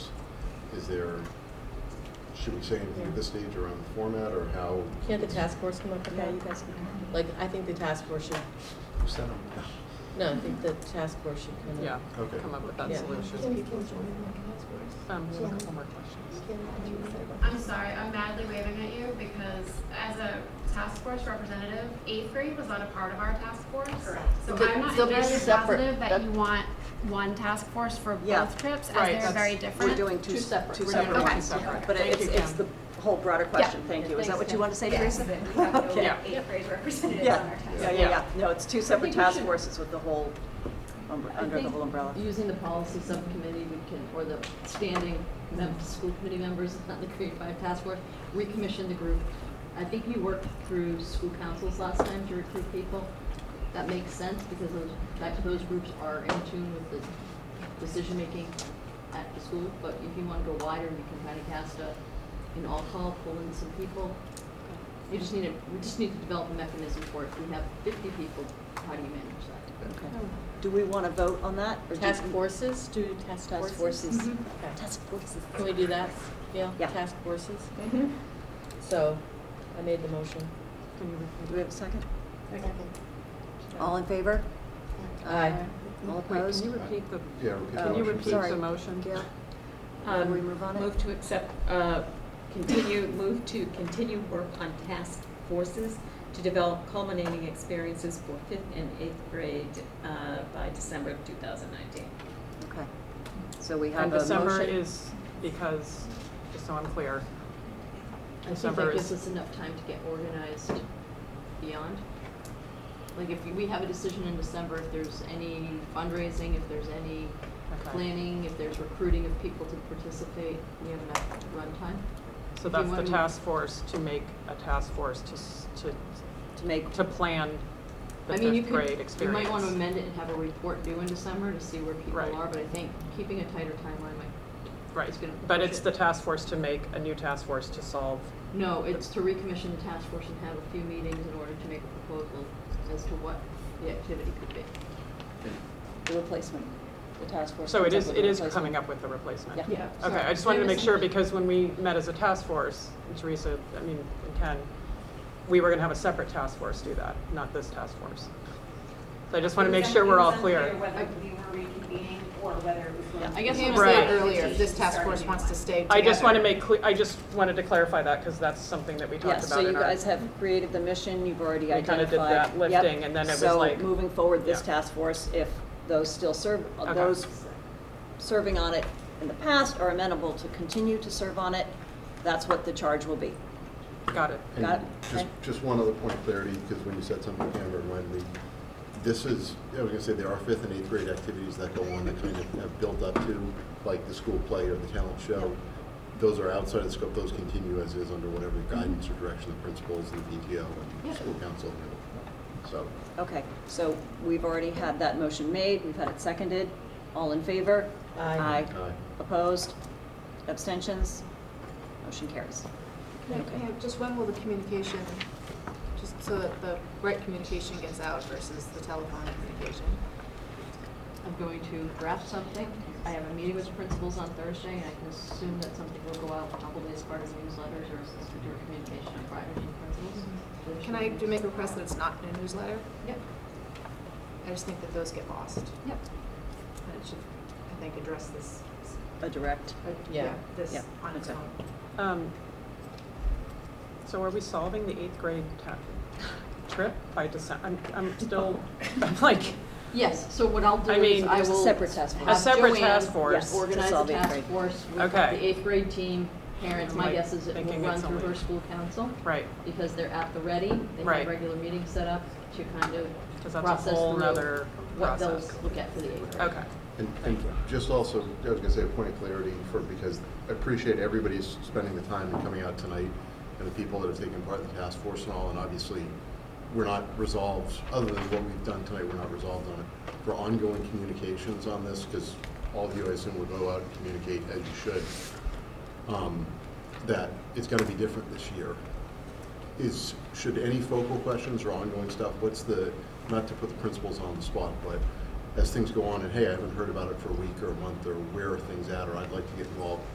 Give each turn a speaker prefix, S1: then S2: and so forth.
S1: is there, should we say anything at this stage around the format or how?
S2: Can't the task force come up with that? You guys can, like, I think the task force should,
S1: Who said them?
S2: no, I think the task force should kind of.
S3: Yeah,
S1: Okay.
S3: come up with that
S2: Yeah.
S3: solution. Um, we have a couple more questions.
S4: I'm sorry, I'm madly waving at you because as a task force representative, eighth grade was not a part of our task force. Correct. So
S2: But
S4: I'm not
S2: they'll be
S4: entirely
S2: separate.
S4: positive that
S2: That-
S4: you want one task force for
S5: Yeah.
S4: both trips as
S3: Right,
S4: they're
S3: that's-
S4: very
S5: We're
S4: different.
S5: doing two separate.
S3: We're doing
S4: Okay.
S3: two separate.
S5: But
S3: Thank
S5: it's,
S3: you,
S5: it's
S3: Kim.
S5: the whole broader question, thank you. Is that what you want to say, Teresa? Okay.
S3: Yeah.
S4: eighth grade representatives
S5: Yeah, yeah, yeah,
S3: Yeah.
S5: yeah. No, it's two separate
S6: think we
S5: task
S6: should-
S5: forces with the whole, um,
S6: I
S5: under the
S6: think
S5: whole umbrella.
S6: Using the policy subcommittee, we can, or the standing mem- school committee members on the grade five task force, recommission the group. I think you worked through school councils last time to recruit people. That makes sense because those, that, those groups are in tune with the decision-making at the school. But if you want to go wider, you can kind of cast a, an all-call, pull in some people. You just need to, we just need to develop a mechanism for it. If we have fifty people, how do you manage that?
S5: Okay. Do we want to vote on that? or do-
S2: Task forces, do task
S5: Task
S2: forces?
S5: forces.
S2: Okay.
S5: Task forces.
S2: Can we do that? Yeah, Mm-hmm.
S5: Yeah.
S2: task forces? So, I made the motion.
S5: Do we have a second? All in favor?
S2: Aye.
S5: All
S3: Wait,
S5: opposed? Oh,
S3: can you repeat the,
S1: Uh, Yeah, repeat the
S3: can you
S1: motion,
S3: repeat
S1: please.
S3: the motion?
S5: Yeah.
S7: Um,
S5: Will we move on it?
S7: Move to accept, uh, continue, move to continue work on task forces to develop culminating experiences for fifth and eighth grade uh, by December of 2019.
S5: Okay. So we have
S3: And
S5: a motion.
S3: December is because, just so I'm clear,
S6: I think
S3: December
S6: that
S3: is-
S6: gives us enough time to get organized beyond. Like if we have a decision in December, if there's any fundraising, if there's any
S3: okay.
S6: planning, if there's recruiting of people to participate, we have enough runtime.
S3: So
S6: If you
S3: that's the
S6: want to-
S3: task force to make a task force to, s- to,
S5: To make,
S3: to plan the
S6: I mean, you
S3: fifth grade
S6: could, you
S3: experience.
S6: might want to amend it and have a report due in December to see where people
S3: Right.
S6: are, but I think keeping a tighter timeline might,
S3: Right,
S6: it's gonna
S3: but
S6: push
S3: it's
S6: it.
S3: the task force to make, a new task force to solve,
S6: no, it's to recommission the task force and have a few meetings in order to make a proposal as to what the activity could be.
S5: the replacement, the task force.
S3: so it
S5: comes up
S3: is,
S5: with
S3: it
S5: a
S3: is
S5: replacement.
S3: coming up with the replacement.
S5: Yeah.
S6: Yeah.
S3: Okay,
S6: sorry.
S3: I just wanted to
S6: There
S3: make
S6: was
S3: sure,
S6: something-
S3: because when we met as a task force, and Teresa, I mean, and Ken, we were gonna have a separate task force do that, not this task force. So I just wanna make sure we're all
S8: It
S3: clear.
S8: was unclear whether we were reconvening or whether it was going to.
S6: I guess
S8: be-
S6: I
S3: was saying Right.
S7: earlier, this task force wants to stay
S3: I just wanna make, cle- I just wanted to clarify that, because that's something that we talked
S5: Yes, so
S3: about
S5: you
S3: in our.
S5: guys have created the mission, you've already
S3: We kinda
S5: identified.
S3: did that
S5: Yep.
S3: lifting, and then it was like-
S5: So moving forward, this
S3: Yeah.
S5: task force, if those still serve,
S3: Okay.
S5: those serving on it in the past are amenable to continue to serve on it, that's what the charge will be.
S3: Got it.
S5: Got
S1: And
S5: it.
S1: just,
S5: Okay.
S1: just one other point of clarity, because when you said something, Amber, remind me, this is, I was gonna say, there are fifth and eighth grade activities that go on that kind of have built up to, like the school play or the talent show. Those are outside of the scope, those continue as is under whatever guidance or direction the principals and the PTO and school council. do. So,
S5: Okay, so we've already had that motion made, we've had it seconded, all in favor?
S2: Aye.
S1: aye.
S5: Opposed? Abstentions? Motion carries.
S9: Can I- can I- Just when will the communication, just so that the right communication gets out versus the telephone communication?
S6: I'm going to draft something. I have a meeting with the principals on Thursday, and I can assume that something will go out probably as part of newsletters or as or communication on Friday to the principals.
S9: Can I do make a request that it's not in a newsletter?
S6: Yep,
S9: I just think that those get lost.
S6: yep.
S9: And it should, I think, address this, uh,
S5: A direct,
S2: Yeah.
S9: this
S5: Yeah,
S9: on its
S5: okay.
S9: own.
S3: Um, So are we solving the eighth grade ta- trip by December? I'm, I'm still, I'm like,
S6: Yes, so what I'll do
S3: I
S6: is
S3: mean,
S6: I
S5: there's a
S6: will.
S5: separate task force.
S3: A separate
S6: have
S3: task
S6: Joanne
S3: force.
S6: Organize
S5: To
S6: a
S5: solve eighth
S6: task
S5: grade.
S6: force with
S3: Okay.
S6: the eighth grade team, parents.
S3: I'm,
S6: My
S3: like,
S6: guess is it will
S3: thinking
S6: run
S3: it's
S6: through
S3: only-
S6: her school council.
S3: right,
S6: Because they're at the ready. They
S3: Right.
S6: have regular meetings set up to kind of
S3: because that's
S6: process
S3: a
S6: through
S3: whole nother
S6: what they'll
S3: process.
S6: look at for the eighth grade.
S3: Okay.
S1: And, and just also, I was gonna say a point of clarity for, because I appreciate everybody's spending the time and coming out tonight and the people that have taken part in the task force and all, and obviously, we're not resolved, other than what we've done tonight, we're not resolved on it. For ongoing communications on this, because all of you, I assume, will go out and communicate as you should, um, that it's gonna be different this year is, should any focal questions or ongoing stuff, what's the, not to put the principals on the spot, but as things go on and, hey, I haven't heard about it for a week or a month, or where are things at, or I'd like to get involved,